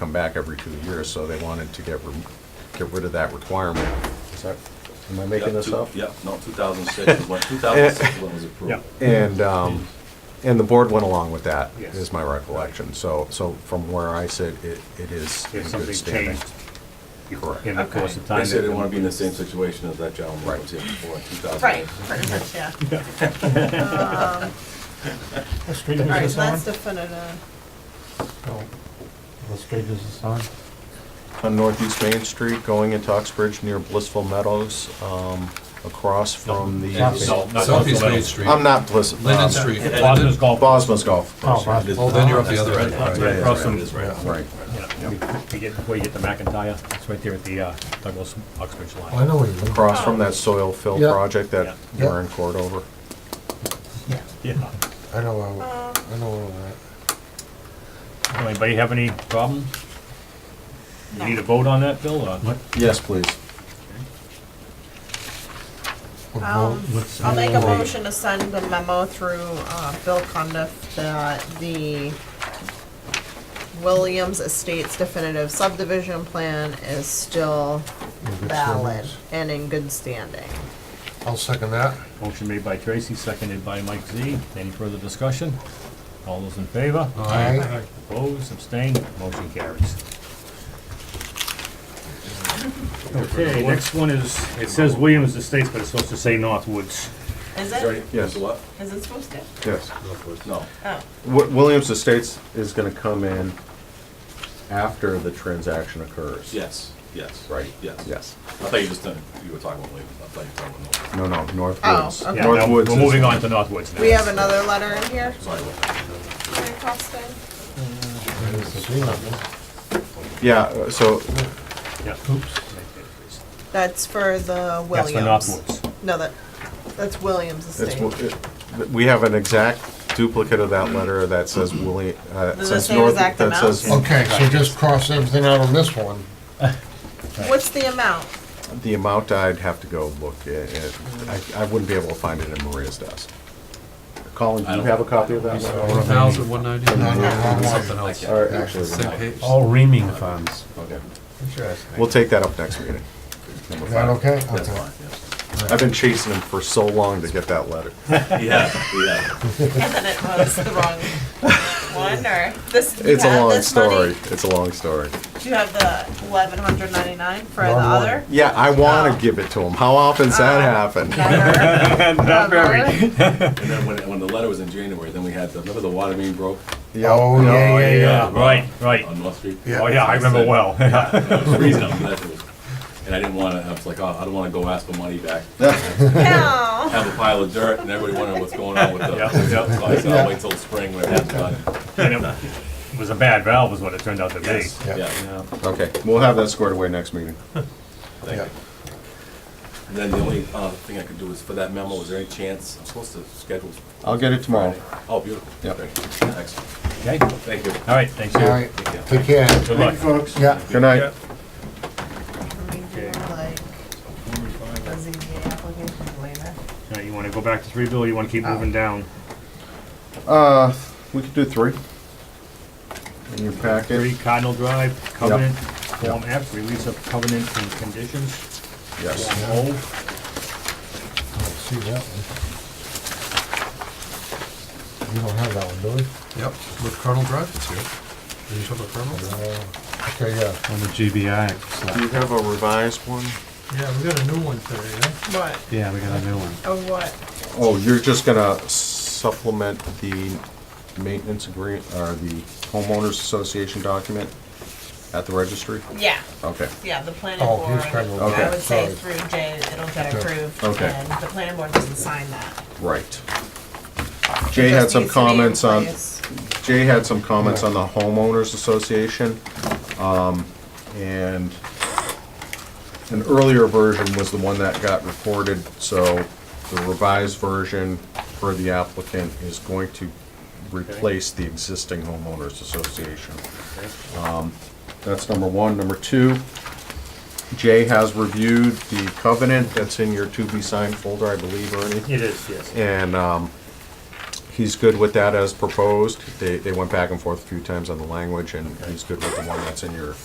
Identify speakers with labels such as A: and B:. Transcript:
A: come back every two years, so they wanted to get, rem- get rid of that requirement. Is that, am I making
B: Yeah,
A: this
B: two-
A: up?
B: Yeah, no, 2006 is when, 2006 when it was approved.
A: And, um, and the board went along with that,
C: Yes.
A: is my recollection. So, so from where I sit, it, it is in good
C: If something
A: standing.
C: changed
A: Correct.
C: in the course of time.
B: They said they
C: that-
B: want to be in the same situation as that gentleman that was here before in 2000.
D: Right, pretty much, yeah. Um,
E: What street
D: All
E: is
D: right,
E: this on?
D: that's definitive.
E: Oh, What street is this on?
A: On Northeast Main Street, going into Uxbridge near Blissful Meadows, um, across from
E: Yeah.
A: the,
E: South-
F: South- Southeast Main Street,
A: I'm not Bliss.
F: Linden
A: um,
F: Street.
E: Bosma's Golf.
A: Bosma's Golf.
E: Oh,
A: Course.
E: Bosma's.
F: Well, then you're up the other end.
C: That's
A: Yeah,
C: right
A: yeah,
C: across
B: Right,
C: from,
B: it is right.
A: Right.
C: yeah, we- we get- before you get to McIntyre, it's right there at the uh, Douglas Uxbridge
F: Oh, I
C: line.
F: know where you live.
A: Across from that soil fill
F: Yeah.
A: project that
F: Yeah.
A: we're in court over.
C: Yeah.
F: I know where, I know where we're at.
C: Anybody have any problem? You need a vote on that, Bill, or what?
A: Yes, please.
F: What
D: Um,
F: road- what's
D: I'll
F: the
D: make a
F: road?
D: motion to send the memo through uh, Bill Cundiff that the Williams Estates definitive subdivision plan is still
F: We'll get
D: valid
F: some
D: and in good standing.
F: roads. I'll second that.
C: Motion made by Tracy, seconded by Mike Z. Any further discussion? All those in favor?
F: Aye.
C: Opposed, abstained, motion carries. Okay, next one is, it says Williams Estates, but it's supposed to say Northwoods.
D: Is
B: Is there any-
D: it,
A: Yes.
B: is what?
D: is it supposed to?
A: Yes.
B: No,
D: Oh,
A: Wi- Williams Estates is gonna come in after the transaction occurs.
B: yes, yes.
A: Right?
B: Yes.
A: Yes.
B: I thought you just, done- you were talking about Williams, I thought you were talking about North.
A: No, no,
D: Oh,
A: Northwoods.
D: okay.
C: Yeah, now,
A: Northwoods
C: We're
A: is-
C: moving on to Northwoods now.
D: we have another letter in here?
B: Sorry about that.
A: Yeah, uh, so
C: Yeah.
D: That's for the
C: That's
D: Williams.
C: for Northwoods.
D: No, that, that's Williams Estates.
A: it's, we have an exact duplicate of that letter that says William, uh,
D: The
A: says
D: same
A: North,
D: exact
A: that
D: amount?
A: says
F: Okay, so just cross everything out on this one.
D: What's the amount?
A: the amount I'd have to go look at. it. I, I wouldn't be able to find it in Maria's desk. Colin, do
B: I
A: you
B: don't-
A: have a copy of that?
G: One thousand, one ninety,
F: No, no, wrong one.
G: something else.
A: All right, actually, we're
G: Same
A: not.
G: page.
E: All reaming funds.
B: Okay,
A: we'll take that up next meeting.
F: Is that okay?
B: that's
F: Okay.
B: fine, yes.
A: I've been chasing him for so long to get that letter.
B: Yeah, yeah.
D: And then it was the wrong one, or this, you
A: It's a
D: have
A: long
D: this
A: story.
D: money?
A: It's a long story.
D: Do you have the eleven hundred ninety-nine for the
F: Wrong one.
D: other?
A: Yeah, I want
D: Oh.
A: to give it to him. How often's that happen?
D: Never. Uh,
C: Not very.
B: And then when, it- when the letter was in January, then we had, the remember the water main broke
F: Oh, yeah, yeah, yeah.
C: Right, right.
B: on North Street?
F: Yeah.
C: Oh, yeah, I remember well.
B: That was the reason I'm- that was- And I didn't want to, I was like, oh, I don't want to go ask for money back.
D: No.
B: have a pile of dirt and everybody wondering what's going on with the,
C: Yeah,
B: so
C: yeah.
B: I said, I'll wait till spring when it has done.
C: And it was a bad valve is what it turned out to be.
B: Yes,
F: Yeah.
B: yeah,
C: Yeah.
A: Okay, we'll have that squared away next meeting.
B: thank you. And then the only, uh, thing I could do is for that memo, is there any chance, I'm supposed to schedule,
A: I'll get it tomorrow.
B: oh, beautiful.
A: Yep.
B: Thank you. Excellent,
C: Okay,
B: thank you.
C: all right, thanks.
F: All right, take care.
C: Good luck.
F: Folks. Yeah.
A: Good night.
D: Like, the ZBA application later.
C: All right, You want to go back to three, Bill, or you want to
D: Oh.
C: keep moving down?
A: Uh, we could do three. In your
C: Three
A: packet?
C: Cardinal Drive, covenant, Form F, release of covenant and conditions,
A: Yes.
C: Form O.
F: See that one? We don't have that one, do we?
G: Yep, with Colonel Drive, it's here. Are you talking about Colonel?
F: Uh, Okay, yeah.
E: On the GBI. so-
A: Do you have a revised one?
G: Yeah, we got a new one today, yeah?
D: What,
E: Yeah, we got a new one.
D: of what?
A: Oh, you're just gonna supplement the maintenance agreement, or the homeowners association document at the registry?
D: Yeah,
A: Okay.
D: yeah, the planning
F: Oh,
D: board,
F: here's kind of-
D: I
A: Okay,
D: would say
F: sorry.
D: through Jay, it'll get
F: Okay.
D: approved,
A: Okay.
D: and the planning board doesn't sign that.
A: Right.
D: It
A: Jay
D: just
A: had some
D: needs to be in
A: comments on,
D: place.
A: Jay had some comments on the homeowners association. um, And an earlier version was the one that got recorded, so the revised version for the applicant is going to replace the existing homeowners association. Um, That's number one. Number two, Jay has reviewed the covenant that's in your to-be-signed folder, I believe, Ernie.
C: It is, yes.
A: And um, he's good with that as proposed. They, they went back and forth a few times on the language, and he's good with the one that's in your